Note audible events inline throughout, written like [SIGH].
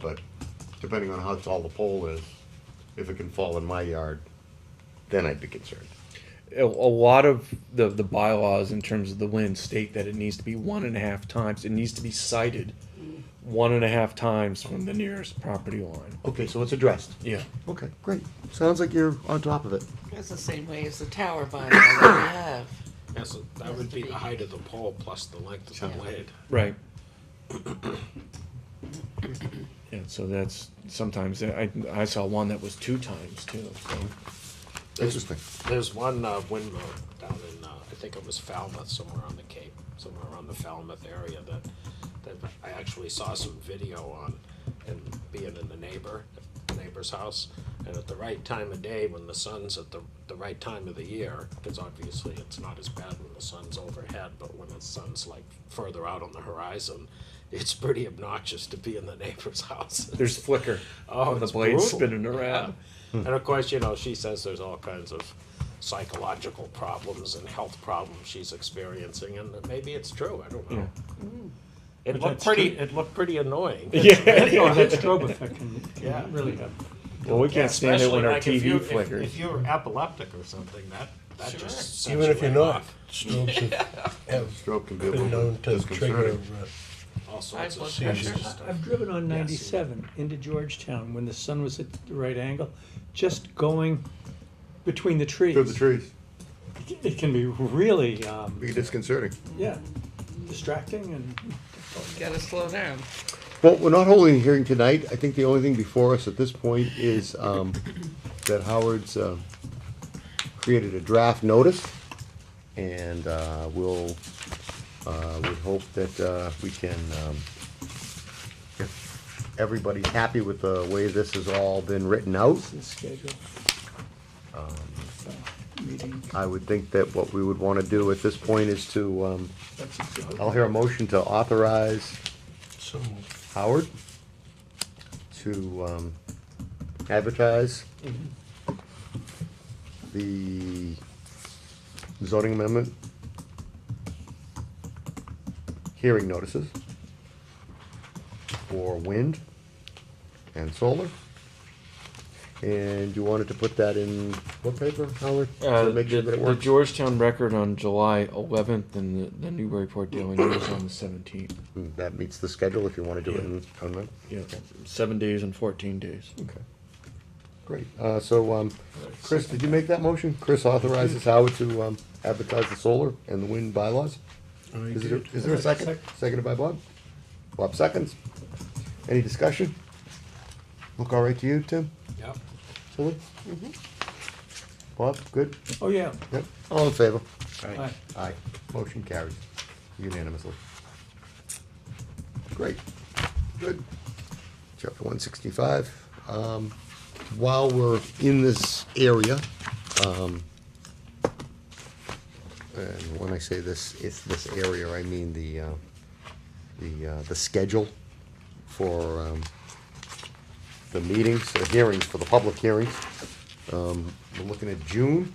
but depending on how tall the pole is, if it can fall in my yard, then I'd be concerned. a, a lot of the, the bylaws in terms of the wind state that it needs to be one and a half times, it needs to be sighted one and a half times from the nearest property line. Okay, so it's addressed. Yeah. Okay, great. Sounds like you're on top of it. That's the same way as the tower bylaw that we have. That's, that would be the height of the pole plus the length of the blade. Right. Yeah, so that's, sometimes, I, I saw one that was two times too, so. Interesting. There's one uh, windmill down in, uh, I think it was Falmouth, somewhere on the Cape, somewhere around the Falmouth area that, that I actually saw some video on and being in the neighbor, neighbor's house. And at the right time of day, when the sun's at the, the right time of the year, because obviously it's not as bad when the sun's overhead, but when the sun's like further out on the horizon, it's pretty obnoxious to be in the neighbor's [LAUGHS] house. There's flicker. Oh, of the it's blade brutal. spinning around. Yeah. And of course, you know, she says there's all kinds of psychological problems and health problems she's experiencing, and maybe it's true. I don't know. It looked that's pretty. true. It looked pretty annoying. No, Oh, that strobe effect can, Yeah. can really have. Well, we can't stand it when Especially our like if you- TV if- flickers. If you're epileptic or something, that that Sure. just sets Even if you you're right not, off. strokes have, have Stroke can be a been little known bit to trigger. disconcerting. uh, all High sorts of blood serious pressure. I've driven on ninety-seven into Georgetown when the sun was at the right angle, just going between the trees. Through the trees, It can be really, um, be disconcerting. yeah, distracting and Gotta slow down. Well, we're not holding a hearing tonight. I think the only thing before us at this point is um, that Howard's uh, created a draft notice, and uh, we'll, uh, we hope that uh, we can, um, if everybody's happy with the way this has all been written out, the schedule. Um. Meeting, I would think that what we would want to do at this point is to, um, that's exhausting. I'll hear a motion to authorize So, Howard to um, advertise the zoning amendment hearing notices for wind and solar. And you wanted to put that in what paper, Howard? Uh, To make sure the- that it the works? Georgetown record on July 11th and the, the Newburyport Daily News on the 17th. Hmm, That meets the schedule if you want to do it in, on that. Yeah, seven days and 14 days. Okay. Great, uh, so, um, Chris, did you make that motion? Chris authorizes Howard to, um, advertise the solar and the wind bylaws? Is there, is there a second? Seconded by Bob? Bob seconds? Any discussion? Look all right to you, Tim? Yep. Tilly? Bob, good? Oh, yeah, Yep, all in favor? Aye. Aye, motion carries unanimously. Great, good. Chapter one sixty-five. Um, while we're in this area, um, and when I say this, it's this area, I mean the, uh, the, uh, the schedule for, um, the meetings, the hearings, for the public hearings. Um, we're looking at June.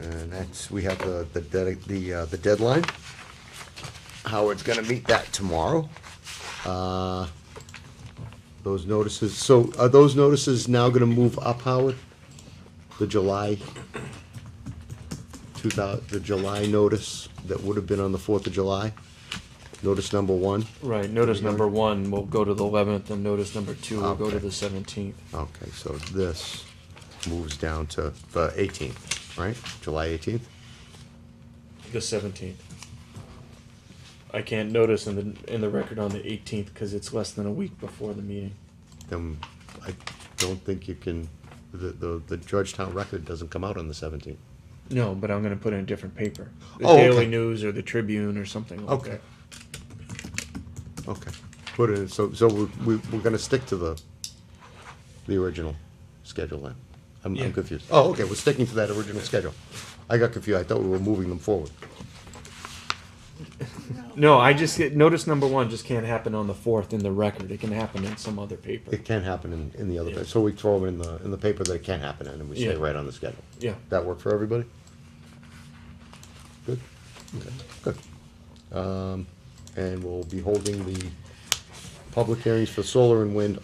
And that's, we have the, the, dedi- the, uh, the deadline. Howard's gonna meet that tomorrow. Uh, Those notices, so are those notices now gonna move up, Howard? The July, two thou, the July notice that would have been on the fourth of July? Notice number one? Right, notice number one will go to the 11th and notice number two will go to Okay. the 17th. Okay, so this moves down to the eighteenth, right? July eighteenth? The 17th. I can't notice in the, in the record on the 18th because it's less than a week before the meeting. then I don't think you can, the, the, the Georgetown record doesn't come out on the seventeenth. No, but I'm going to put in a different paper. The Oh, okay. Daily News or the Tribune or something like that. Okay, put it, so, so we, we, we're gonna stick to the, the original schedule then? I'm, Yeah. I'm confused. Oh, okay, we're sticking to that original schedule. I got confused, I thought we were moving them forward. No, I just get notice number one just can't happen on the 4th in the record. It can happen in some other paper. It can happen in, in the other, pa- so we throw it in the, in the paper that it can happen in, and we stay Yeah. right on the schedule. Yeah. That work for everybody? Good? Okay, good. Um, and we'll be holding the public hearings for solar and wind